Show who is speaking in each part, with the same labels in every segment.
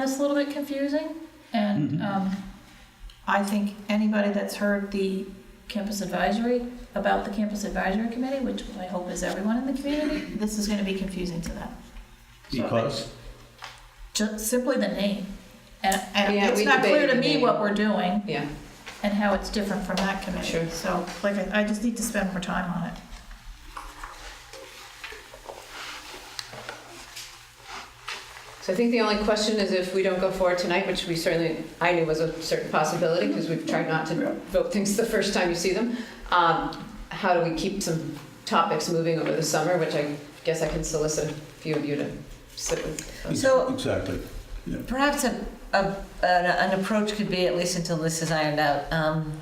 Speaker 1: this a little bit confusing. And um, I think anybody that's heard the campus advisory, about the campus advisory committee, which I hope is everyone in the community, this is gonna be confusing to them. So,
Speaker 2: Because,
Speaker 1: Just simply the name. And, and
Speaker 3: Yeah,
Speaker 1: it's
Speaker 3: we
Speaker 1: not clear
Speaker 3: debated
Speaker 1: to
Speaker 3: the
Speaker 1: me
Speaker 3: name.
Speaker 1: what we're doing
Speaker 3: Yeah,
Speaker 1: and how it's different from that committee.
Speaker 3: Sure.
Speaker 1: So, like, I I just need to spend more time on it.
Speaker 3: so I think the only question is if we don't go forward tonight, which we certainly, I knew was a certain possibility, because we've tried not to vote things the first time you see them, um, how do we keep some topics moving over the summer, which I guess I can solicit a few of you to sit with. us.
Speaker 4: So-
Speaker 2: exactly.
Speaker 4: Perhaps a, a, an, an approach could be, at least until this is ironed out, um,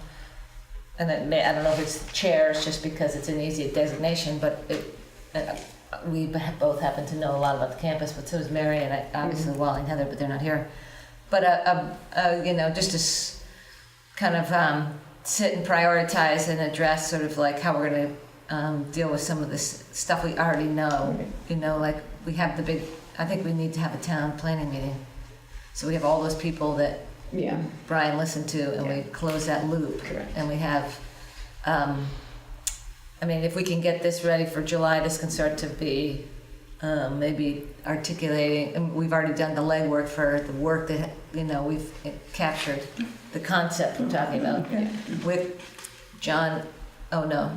Speaker 4: and it may, I don't know if it's chairs, just because it's an easy designation, but it, uh, we b- both happen to know a lot about the campus, but so does Mary and I, obviously Wally and Heather, but they're not here. But a, a, a you know, just to s- kind of um, sit and prioritize and address sort of like how we're going to um, deal with some of this stuff we already know. You know, like we have the big, I think we need to have a town planning meeting. So we have all those people that
Speaker 3: Yeah,
Speaker 4: Brian listened to, and we close that loop.
Speaker 3: Correct.
Speaker 4: And we have, um, I mean, if we can get this ready for July, this can start to be um, maybe articulating. And we've already done the legwork for the work that you know we've captured the concept we're talking about with John. Oh no,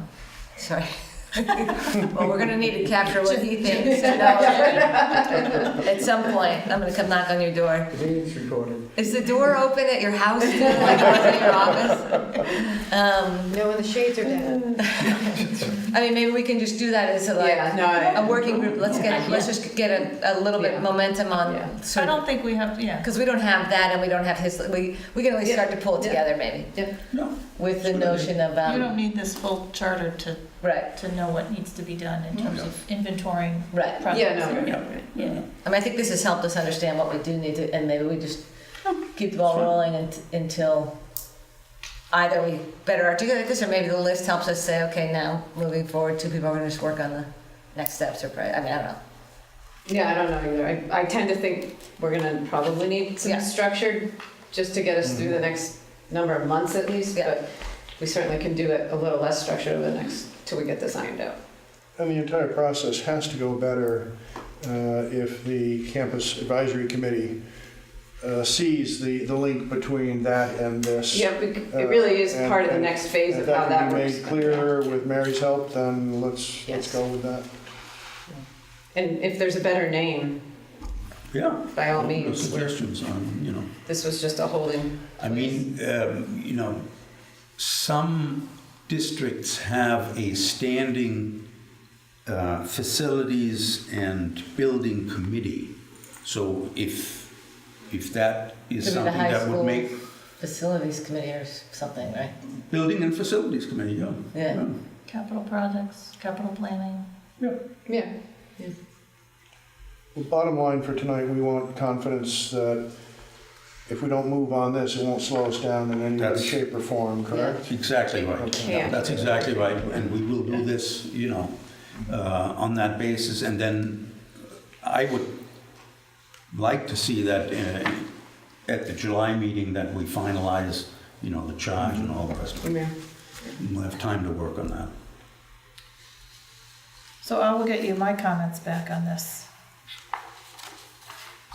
Speaker 4: sorry. well, we're gonna need to capture what he thinks. you know. at some point, I'm gonna come knock on your door.
Speaker 5: Meeting's recorded.
Speaker 4: Is the door open at your house too, like it was at your office? Um,
Speaker 6: No, and the shades are down.
Speaker 4: I mean, maybe we can just do that as a
Speaker 3: yeah,
Speaker 4: like,
Speaker 3: no, I-
Speaker 4: a working group, let's get, let's just get a, a little
Speaker 3: Yeah.
Speaker 4: bit momentum
Speaker 3: Yeah.
Speaker 4: on
Speaker 1: I
Speaker 4: sort of,
Speaker 1: don't think we have, yeah.
Speaker 4: because we don't have that and we don't have his, we, we can at least
Speaker 3: Yeah.
Speaker 4: start to pull it
Speaker 3: Yeah.
Speaker 4: together maybe,
Speaker 2: No,
Speaker 4: with the notion of,
Speaker 1: You don't
Speaker 4: um,
Speaker 1: need this full charter to,
Speaker 4: right,
Speaker 1: to know what needs to be done in terms of inventorying
Speaker 4: right.
Speaker 1: projects.
Speaker 3: yeah, no, no, no.
Speaker 1: Yeah.
Speaker 4: I mean, I think this has helped us understand what we do need to, and maybe we just keep the ball rolling unt- until either we better articulate this, or maybe the list helps us say, okay, now moving forward, two people are gonna just work on the next steps or, pri- I mean, I don't know.
Speaker 3: Yeah, I don't know either. I, I tend to think we're gonna probably need some
Speaker 4: Yeah.
Speaker 3: structured, just to get us through the
Speaker 7: Mm-hmm.
Speaker 3: next number of months at least,
Speaker 4: Yeah.
Speaker 3: but we certainly can do it a little less structured over the next, till we get this ironed out.
Speaker 7: And the entire process has to go better uh, if the campus advisory committee uh, sees the, the link between that and this.
Speaker 3: Yeah, we c- it really is
Speaker 7: Uh,
Speaker 3: part of the
Speaker 7: and-
Speaker 3: next phase
Speaker 7: If
Speaker 3: of how
Speaker 7: that
Speaker 3: that
Speaker 7: can be
Speaker 3: works.
Speaker 7: made clearer with Mary's help, then
Speaker 3: Yes.
Speaker 7: let's, let's go with that.
Speaker 3: And if there's a better name,
Speaker 2: yeah.
Speaker 3: by
Speaker 7: Mm-hmm.
Speaker 3: all
Speaker 2: No
Speaker 3: means, we're-
Speaker 2: Suggestions on, you know,
Speaker 3: this was just a holding.
Speaker 2: I mean, um, you know, some districts have a standing uh, facilities and building committee. So if, if that is
Speaker 4: Could be the
Speaker 2: something
Speaker 4: high
Speaker 2: that would
Speaker 4: school
Speaker 2: make,
Speaker 4: Facilities committee or s- something, right?
Speaker 2: building and facilities committee, yeah.
Speaker 4: Yeah.
Speaker 1: Capital projects, capital planning.
Speaker 3: Yeah.
Speaker 7: Well, Bottom line for tonight, we want confidence that if we don't move on this, it won't slow us down in any way,
Speaker 2: That's-
Speaker 7: shape, or form, correct?
Speaker 2: Exactly right.
Speaker 3: Yeah.
Speaker 2: That's exactly right, and we will do this, you know, uh, on that basis, and then I would like to see that uh, at the July meeting that we finalize, you know, the charge and all the rest of it.
Speaker 3: Yeah.
Speaker 2: We'll have time to work on that.
Speaker 1: So I will get you my comments back on this.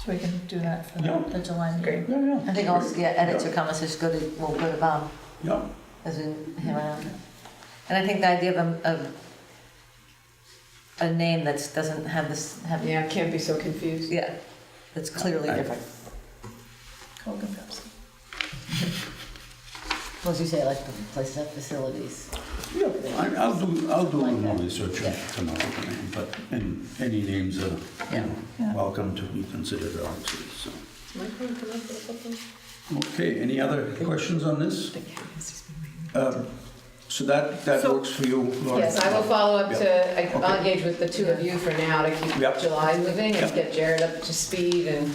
Speaker 1: So we can do that for
Speaker 2: Yeah.
Speaker 1: the July
Speaker 3: Great.
Speaker 1: meeting.
Speaker 2: Yeah, yeah.
Speaker 4: I think also, yeah, edits or comments, just go to, we'll go to Bob
Speaker 2: Yeah,
Speaker 4: as we hammer out. And I think the idea of a, of a name that's, doesn't have this, have,
Speaker 3: Yeah, can't be so confused.
Speaker 4: yeah, that's clearly
Speaker 2: I-
Speaker 4: different.
Speaker 1: Coke and Pepsi.
Speaker 4: Well, as you say, like the places have facilities.
Speaker 2: yeah, I- I'll do, I'll do a little
Speaker 4: Like
Speaker 2: more
Speaker 4: that.
Speaker 2: research
Speaker 4: Yeah.
Speaker 2: tomorrow, but, and any names are, you
Speaker 4: Yeah.
Speaker 2: know,
Speaker 1: Yeah.
Speaker 2: welcome to be considered, obviously, so.
Speaker 3: Might come up with something.
Speaker 2: Okay, any other questions on this?
Speaker 3: But yeah, it's just been written.
Speaker 2: Um, So that, that
Speaker 3: So-
Speaker 2: works for you, Laura?
Speaker 3: Yes, I will follow up to, I- I'll engage with the two of you for now to keep
Speaker 2: Yep.
Speaker 3: July moving and
Speaker 2: Yep.
Speaker 3: get Jared up to speed and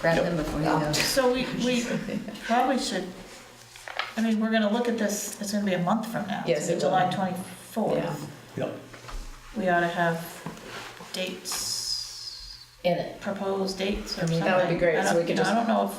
Speaker 4: Grab
Speaker 2: Yep.
Speaker 4: them before you go.
Speaker 1: So we, we probably should, I mean, we're gonna look at this, it's gonna be a month from now.
Speaker 3: Yes,
Speaker 1: It's
Speaker 3: it will.
Speaker 1: July
Speaker 3: Yeah.
Speaker 1: twenty-fourth.
Speaker 2: Yep.
Speaker 1: We ought to have dates
Speaker 4: in it.
Speaker 1: proposed dates or
Speaker 4: I mean,
Speaker 1: something.
Speaker 4: that
Speaker 3: would be great,
Speaker 1: I
Speaker 3: so
Speaker 1: don't-
Speaker 3: we
Speaker 1: you
Speaker 3: could
Speaker 1: know, I
Speaker 3: just-
Speaker 1: don't know if